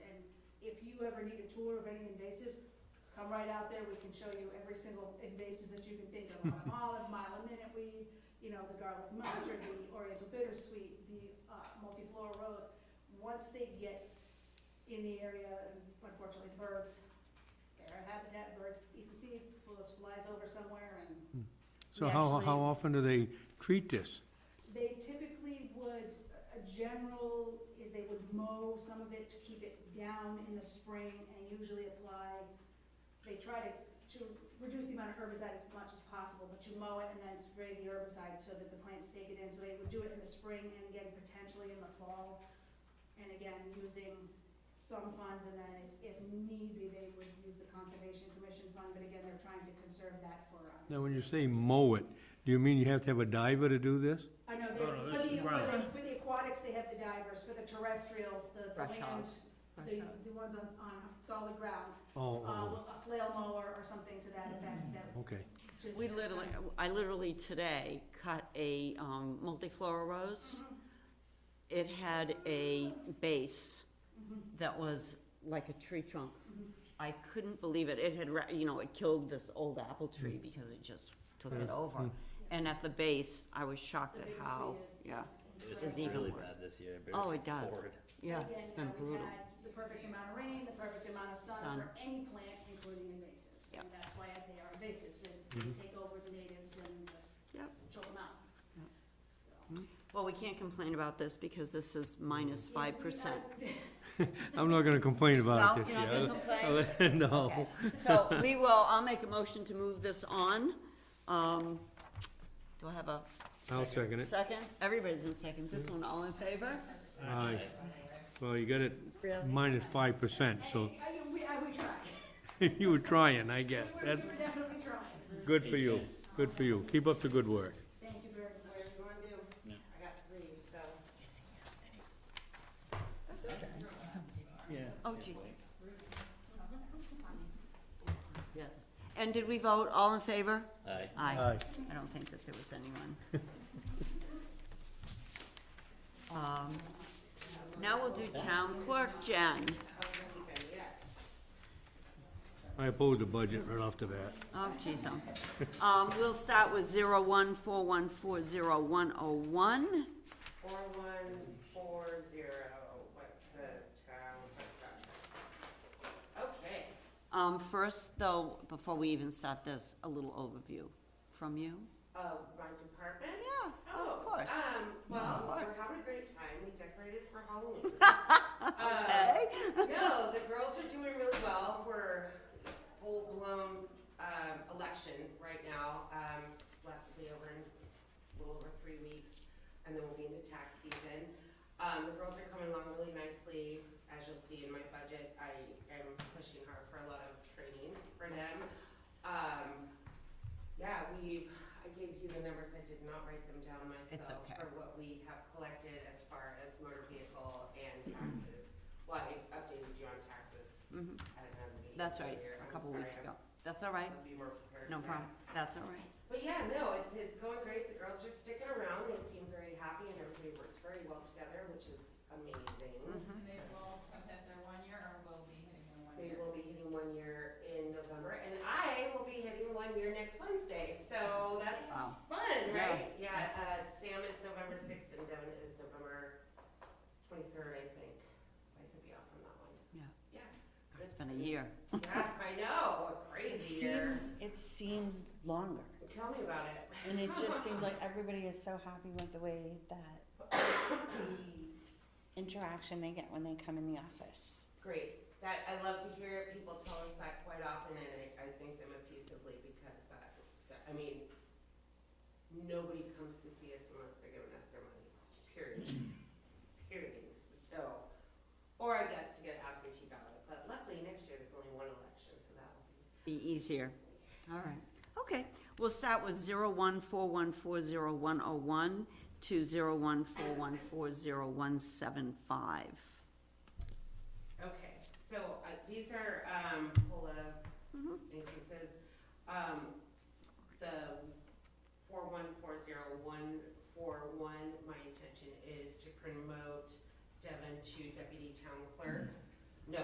you ever need a tour of any invasives, come right out there, we can show you every single invasive that you can think of. Mile olive, mile a minute weed, you know, the garlic mustard, the oriental bittersweet, the uh, multiflora rose. Once they get in the area, and unfortunately, birds, their habitat, birds eat the seed, flies- flies over somewhere and So We how, actually- how often do they treat this? They typically would, a general is they would mow some of it to keep it down in the spring and usually apply, they try to, to reduce the amount of herbicide as much as possible, but you mow it and then spray the herbicide so that the plants take it in. So they would do it in the spring and again potentially in the fall. And again, using some funds and then if if need be, they would use the Conservation Commission fund, but again, they're trying to conserve that for us. Now, when you say mow it, do you mean you have to have a diver to do this? I know, Oh, No, no, they- for the, this is for the, ground. for the aquatics, they have the divers, for the terrestrials, the the Brush land, hogs. the, the ones on, on solid ground. Oh, Uh, oh, a flail mower or something to that Mm. effect that okay. just. We literally, I literally today cut a um, multiflora rose. Mm-hmm. It had a base that was like a tree trunk. I couldn't believe it. It had, ra- you know, it killed this old apple tree because it just took it over. And at the base, I was shocked The at big how, tree is- yeah, is- It's It's even really worse. bad this year. Oh, embarrassing it does. forward. yeah, Again, it's now been we've brutal. had The perfect amount of rain, the perfect amount of sun Sun. for any plant, including invasives. Yep. And that's why they are invasives, is Mm-hmm. they take over the natives and Yep. just choke them out. Yep. So- Well, we can't complain about this because this is minus Yes, five we percent. have- I'm not gonna complain about No, it Oh, this you're not gonna year. complain? No. Okay, so we will, I'll make a motion to move this on. Um, do I have a I'll second it. second? Everybody's in second. This one, all in favor? Aye. Well, you got it Really? minus five percent, so I- I- we, I, we tried. you were trying, I We guess. were, That's we were definitely trying. good for you. Good for you. Keep up the good work. Thank you very much. I got three, so. Oh, Jesus. Yes. And did we vote? All in favor? Aye. Aye. I don't think that there was anyone. Um, now we'll do town clerk, Jen. yes. I oppose the budget right off the bat. Oh, geez, um, um, we'll start with zero one four one four zero one oh one. Four one four zero, what the town got. Okay, Um, first, though, before we even start this, a little overview from you. oh, my department? Yeah, Oh, of course. Um, well, course. we're having a great time, we decorated for Halloween. Uh, Okay, No, the girls are doing really well. We're full-blown um, election right now. Um, Less will be over in a little over three weeks, and then we'll be into tax season. Um, The girls are coming along really nicely. As you'll see in my budget, I am pushing hard for a lot of training for them. Um, Yeah, we, I gave you the numbers. I did not write them down myself. okay. For what we have collected as far as motor vehicle and taxes. Well, I updated you on taxes Mhm. at another meeting. that's right, earlier. I'm a couple weeks sorry, ago. That's all right, I'll be more prepared. no for that. problem, that's all right. But yeah, no, it's, it's going great. The girls are sticking around. They seem very happy and everybody works very well together, which is amazing. Mhm. And they will have hit their one year or will be hitting their one They year. will be hitting one year in November and I will be hitting one year next Wednesday. So that's Wow. fun, Yeah. right? Yeah, uh, Sam is November sixth and Devin is November twenty-third, I think. I could be off on that one. Yeah. Yeah. It's been a year. Yeah, I know, a crazy year. it seems longer. Tell me about it. And it just seems like everybody is so happy with the way that the interaction they get when they come in the office. Great. That, I love to hear it. People tell us that quite often and I, I thank them effusively because that, that, I mean, nobody comes to see us unless they're giving us their money, period. Period. So, or I guess to get absentee ballot, but luckily next year there's only one election, so that will be. Be easier, all right. Okay, we'll start with zero one four one four zero one oh one to zero one four one four zero one seven five. Okay, so uh, these are um, COLA Mhm. increases. Um, The four one four zero one four one, my intention is to promote Devin to deputy town clerk.